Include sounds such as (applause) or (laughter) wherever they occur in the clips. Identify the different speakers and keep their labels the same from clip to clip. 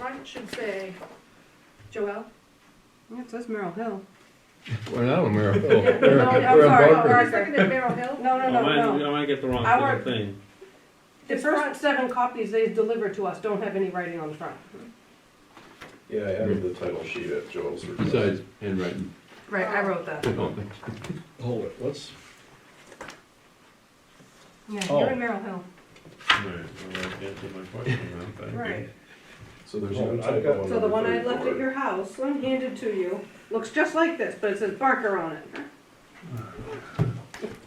Speaker 1: mine should say, Joelle?
Speaker 2: Yeah, It says Merrill Hill.
Speaker 3: We're not a miracle.
Speaker 1: No,
Speaker 3: We're-
Speaker 1: no, I'm
Speaker 3: we're
Speaker 1: sorry,
Speaker 3: in
Speaker 1: no,
Speaker 3: Barker.
Speaker 1: I was looking at Merrill Hill.
Speaker 2: No, no,
Speaker 4: I
Speaker 2: no,
Speaker 4: might,
Speaker 2: no.
Speaker 4: I might get the wrong
Speaker 2: I
Speaker 4: damn
Speaker 2: work-
Speaker 4: thing.
Speaker 2: The first seven copies they delivered to us don't have any writing on the front.
Speaker 5: Yeah, I added the title sheet at Joel's
Speaker 3: (laughs)
Speaker 5: request.
Speaker 3: Besides handwriting, (laughs)
Speaker 2: Right, I wrote that.
Speaker 3: I don't think.
Speaker 5: Hold it, let's,
Speaker 2: Yeah,
Speaker 5: Oh.
Speaker 2: you're in Merrill Hill.
Speaker 4: Alright, well, I can't do my question now, thank you.
Speaker 2: Right.
Speaker 5: so there's
Speaker 4: Oh,
Speaker 5: one
Speaker 4: I've
Speaker 5: typo
Speaker 4: got-
Speaker 5: on
Speaker 2: So the one I
Speaker 5: number
Speaker 2: left at your house, one handed to you, looks just like this, but it says Barker on it.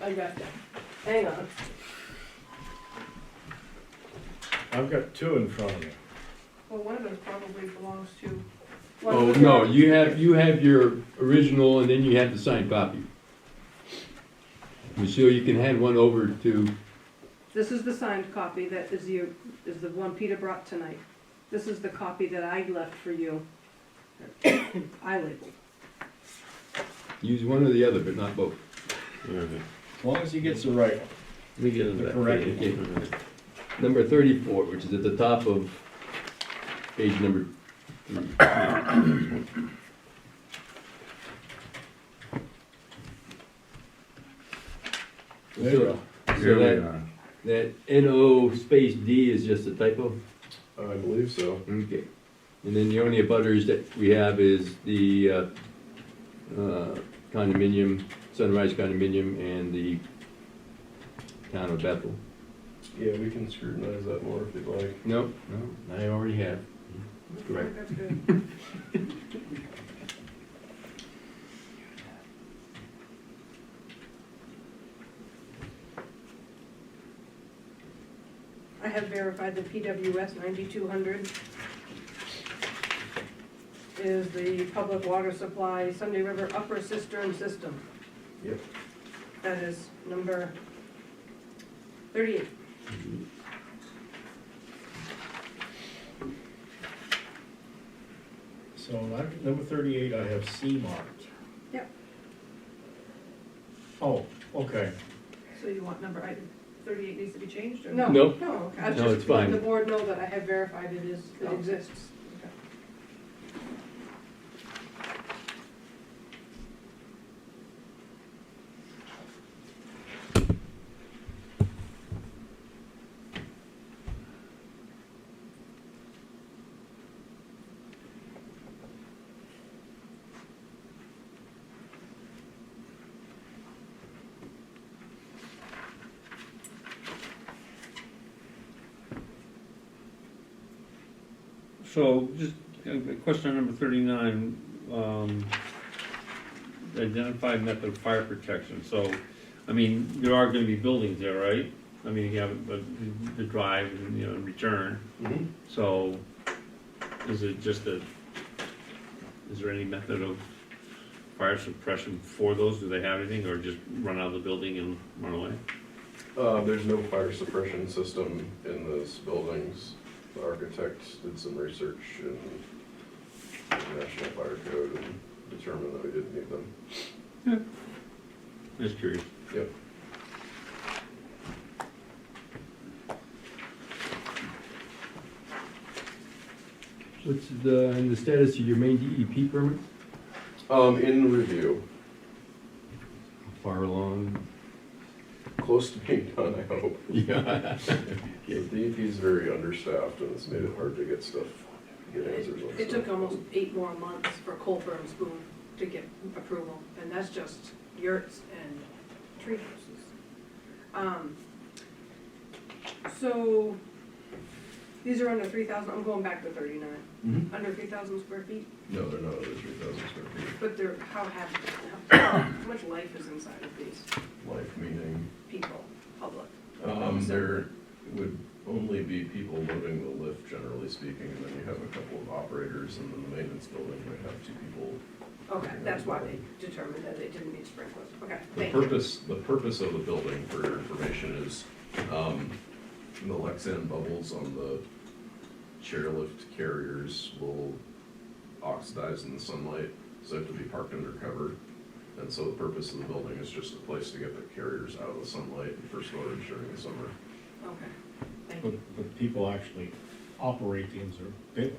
Speaker 2: I got that. Hang on.
Speaker 6: I've got two in front of me.
Speaker 1: Well, one of them probably belongs to,
Speaker 2: One
Speaker 3: Oh,
Speaker 2: with
Speaker 3: no,
Speaker 2: your-
Speaker 3: you have, you have your original and then you have the signed copy. Michelle, you can hand one over to,
Speaker 2: This is the signed copy that is you, is the one Peter brought tonight. This is the copy that I left for you. (coughs) I labeled.
Speaker 3: use one or the other, but not both.
Speaker 4: Alright,
Speaker 6: As long as he gets the right one.
Speaker 4: Let me get into
Speaker 6: The
Speaker 4: that.
Speaker 6: correct
Speaker 4: page.
Speaker 3: Number thirty-four, which is at the top of page number three.
Speaker 6: There we go.
Speaker 3: So
Speaker 4: Here we
Speaker 3: that-
Speaker 4: are.
Speaker 3: That NO space D is just a typo?
Speaker 5: four. Uh, I believe so.
Speaker 3: Okay. And then the only abutters that we have is the uh, uh, condominium, Sunrise condominium and the town of Bethel.
Speaker 5: Yeah, we can scrutinize that more if you'd like.
Speaker 3: No, no, I already have. Correct.
Speaker 1: that's good.
Speaker 2: I have verified the PWS ninety-two hundred is the public water supply Sunday River upper cistern system.
Speaker 5: Yep.
Speaker 2: That is number thirty-eight.
Speaker 6: So on item number thirty-eight, I have C marked.
Speaker 2: Yep.
Speaker 6: Oh, okay.
Speaker 1: so you want number item thirty-eight needs to be changed or?
Speaker 2: No.
Speaker 3: No,
Speaker 1: No, okay.
Speaker 2: I was
Speaker 3: No,
Speaker 2: just
Speaker 3: it's fine.
Speaker 2: letting The board know that I have verified it is, it
Speaker 1: Oh.
Speaker 2: exists.
Speaker 4: So, just, uh, question number thirty-nine, um, identify method of fire protection, so, I mean, there are gonna be buildings there, right? I mean, you have uh, the drive and, you know, return,
Speaker 5: Mm-hmm.
Speaker 4: so, is it just a, is there any method of fire suppression for those, do they have anything, or just run out of the building and run away?
Speaker 5: Uh, there's no fire suppression system in those buildings. The architect did some research in the National Fire Code and determined that we didn't need them.
Speaker 4: Just curious.
Speaker 5: Yep.
Speaker 3: what's the, and the status of your main DEP permit?
Speaker 5: Um, in review,
Speaker 3: Far (laughs) along.
Speaker 5: close to being done, I hope.
Speaker 3: Yeah.
Speaker 5: The DEP is very understaffed and it's made it hard to get stuff, get answers on
Speaker 2: It
Speaker 5: stuff.
Speaker 2: it took almost eight more months for Colfer and Spoon to get approval, and that's just yurts and tree houses. Um, So, these are under three thousand, I'm going back to
Speaker 5: Mm-hmm.
Speaker 2: thirty-nine, under three thousand square feet,
Speaker 5: No, they're not over three thousand square feet.
Speaker 2: but they're, how have, how much life is inside of these
Speaker 5: Life meaning,
Speaker 2: people, public?
Speaker 5: um, there would only be people loading the lift, generally speaking, and then you have a couple of operators, and then the maintenance building might have two people
Speaker 2: Okay, that's why they determined that they didn't need sprinklers, okay,
Speaker 5: The
Speaker 2: thank you.
Speaker 5: purpose, the purpose of the building, for your information, is, um, the Lexan bubbles on the chairlift carriers will oxidize in the sunlight, so they have to be parked undercover. And so the purpose of the building is just a place to get the carriers out of the sunlight and for storage during the summer.
Speaker 2: Okay, thank you.
Speaker 6: But, but people actually operate the, obser- they